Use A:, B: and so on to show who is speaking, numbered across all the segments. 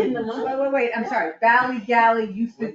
A: in the money.
B: Wait, wait, wait, I'm sorry, Valley Galley used to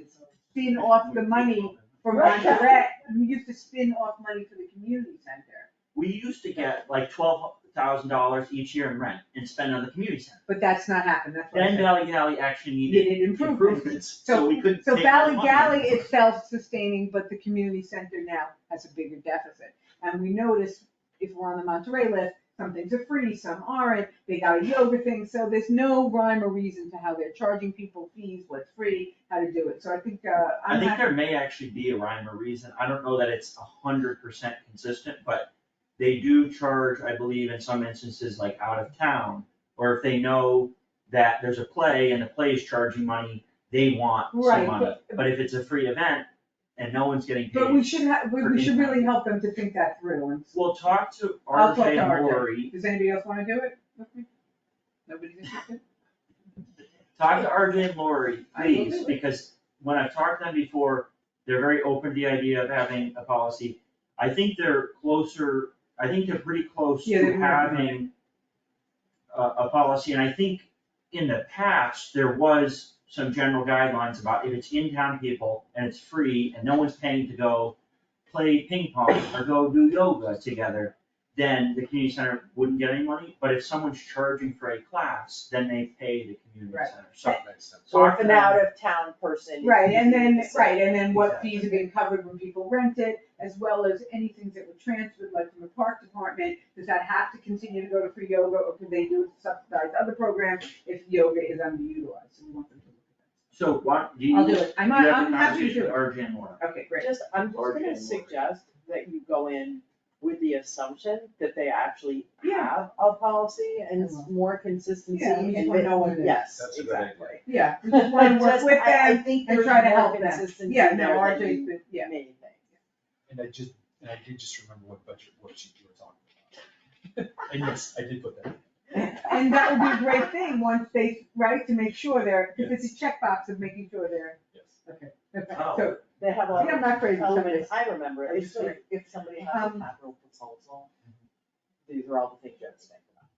B: spin off the money from Monterey, you used to spin off money for the community center,
C: We used to get like twelve thousand dollars each year in rent and spend on the community center.
B: but that's not happened, that's what I'm
C: Then
A: uh,
B: saying.
C: Valley Galley actually needed
B: Needed improvements.
C: improvements, so we couldn't
B: So
C: take that
B: Valley
C: money.
B: Galley is self-sustaining, but the community center now has a bigger deficit. And we notice if we're on the Monterey list, some things are free, some aren't, they got a yoga thing, so there's no rhyme or reason to how they're charging people fees, what's free, how to do it. So I think, uh,
C: I
B: I'm
C: think
B: not,
C: there may actually be a rhyme or reason, I don't know that it's a hundred percent consistent, but they do charge, I believe, in some instances, like out of town, or if they know that there's a play and the play is charging money, they want
B: Right,
C: some money,
B: but-
C: but if it's a free event and no one's getting paid.
B: but we should have, we,
C: for
B: we should
C: impact.
B: really help them to think that through and,
C: We'll talk to
B: I'll talk to
C: RJ
B: RJ.
C: Mori,
B: does anybody else wanna do it with me? Nobody's interested?
C: talk to RJ Lori,
B: I will do
C: please,
B: it.
C: because when I've talked to them before, they're very open to the idea of having a policy. I think they're closer, I think they're pretty close
B: Yeah, they
C: to
B: were.
C: having a, a policy, and I think in the past, there was some general guidelines about if it's in-town people and it's free and no one's paying to go play ping pong or go do yoga together, then the community center wouldn't get any money, but if someone's charging for a class, then they pay the community
B: Right.
C: center, so.
D: makes sense.
C: so
A: Or if an out of town person.
B: Right, and then,
A: is-
B: right, and then what fees have been covered when people rent it, as well as anything that were transferred, like from the park department, does that have to continue to go to free yoga, or can they do it to subsidize other programs if yoga is underutilized? So we want them to look
C: So
B: at
C: what, do
B: that.
C: you?
B: I'll do it, I'm,
C: you have a
B: I'm happy to
C: conversation
B: do
C: with
B: it.
C: RJ and Laura.
B: Okay, great.
A: Just, I'm just
C: Or
A: gonna
C: getting more.
A: suggest that you go in with the assumption that they actually
B: Yeah.
A: have a policy and s-
B: Yeah.
A: more consistency
B: Yeah, we
A: and
B: just wanna know what it
A: that,
B: is.
A: yes,
D: That's a good idea.
A: exactly.
B: Yeah, we just wanna work
A: Just-
B: with
A: I- I
B: them
A: think
B: and
A: there's
B: try to
A: more
B: help them.
A: consistency
B: Yeah, no,
A: there than
B: RJ's been, yeah.
A: main thing.
D: And I just, and I did just remember what budget worksheet you were talking about. And yes, I did put that. in.
B: And that would be a great thing, once they, right, to make sure they're, because it's a checkbox of making sure they're,
D: Yes.
B: okay,
C: Oh.
B: so,
A: They have a.
B: I think I'm not crazy,
A: Oh,
B: somebody.
A: I remember,
B: I'm
A: if,
B: sorry.
A: if somebody has a
B: Um,
A: capital proposal, these are all the things you have to think about.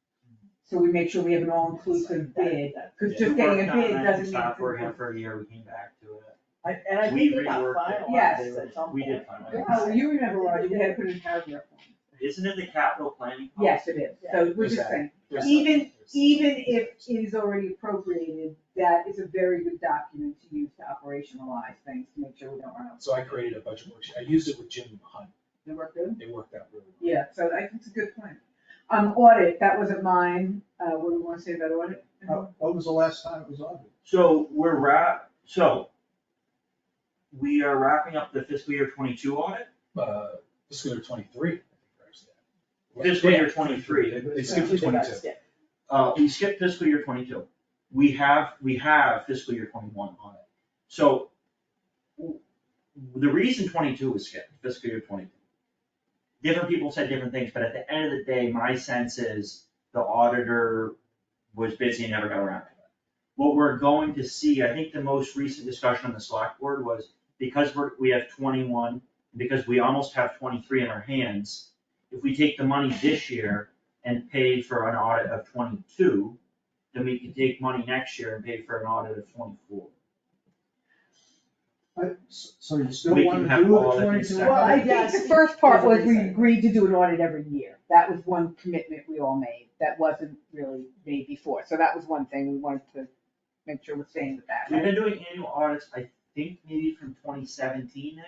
B: So we make sure we have an all-inclusive
A: Like that-
B: bid,
A: that-
B: because
C: Yeah.
B: just
C: We
B: getting a
C: worked on
B: bid
C: it,
B: doesn't mean.
C: Stopped
B: it's
C: working
B: enough.
C: for a year, we came back to it.
A: I- And I
C: We
A: think they got
C: reworked it.
B: Yes.
A: finalized at some
C: We
A: point.
C: did find
A: Yeah.
C: it.
B: Oh, you remember, Roger, we had to put in paragraph form.
C: Isn't it the capital planning?
B: Yes, it is, so we're
D: There's
B: just
D: that.
B: saying,
D: There's
B: even,
D: nothing. There's-
B: even if it is already appropriated, that is a very good document to use to operationalize things, to make sure we don't run out.
D: So I created a budget worksheet. I used it with Jim Hunt.
B: Did it work good?
D: It worked out really well.
B: Yeah, so I think it's a good point. Um, audit, that wasn't mine, uh, what do we wanna say about audit?
C: Oh,
E: When was the last time it was audited?
C: So we're wrap, so we are wrapping up the fiscal year twenty-two audit.
D: Uh, fiscal year twenty-three. I think, or is that-
C: Fiscal year
D: Yeah,
C: 23.
D: They- They skipped to
A: They got
D: twenty-two.
A: skipped.
C: Uh, we skipped fiscal year twenty-two. We have, we have fiscal year twenty-one on it. So w- the reason twenty-two was skipped, fiscal year twenty-two. Different people said different things, but at the end of the day, my sense is the auditor was busy and never got around to it. What we're going to see, I think the most recent discussion on the select board was because we're, we have twenty-one, because we almost have twenty-three in our hands, if we take the money this year and pay for an audit of twenty-two, then we can take money next year and pay for an audit of twenty-four.
E: I- So so you still
C: We
E: want
C: can
E: to
C: have
E: do
C: all
E: the
C: of these
E: twenty-two
C: separate.
B: Well, I
E: audit?
B: think the first part was we agreed to do an audit every year. That was one commitment we all made. That wasn't really made before. So that was one thing we wanted to make sure we're staying with that,
C: We've
B: right?
C: been doing annual audits, I think maybe from twenty seventeen-ish,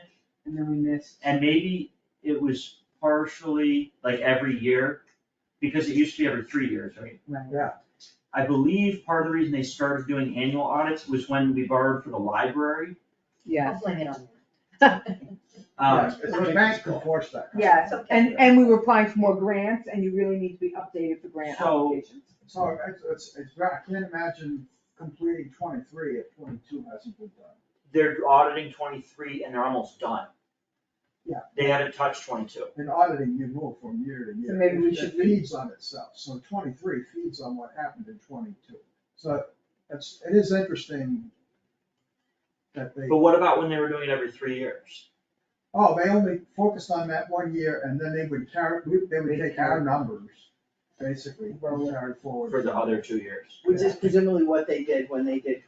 B: And then we missed.
C: and maybe it was partially like every year, because it used to be every three years, right?
B: Right.
C: I believe part of the reason they started doing annual audits was when we borrowed for the library.
B: Yeah,
C: Um,
E: Yes, The bank could force that.
B: yes. And, and we were applying for more grants and you really need to be updated for grant
C: So-
B: applications.
E: So it's, it's, it's, right. I can't imagine completing twenty-three if twenty-two hasn't been done.
C: they're auditing twenty-three and they're almost done.
E: Yeah.
C: They haven't touched twenty-two.
E: In auditing, you move from year to year.
B: So maybe we
E: It-
B: should
E: It feeds on itself, so twenty-three feeds on what happened in twenty-two. So it's, it is interesting that they,
C: But what about when they were doing it every three years?
E: oh, they only focused on that one year and then they would carry, they would take our numbers
F: basically
A: Roll it.
F: carried forward.
E: for the other two years.
A: which is presumably what they did when they did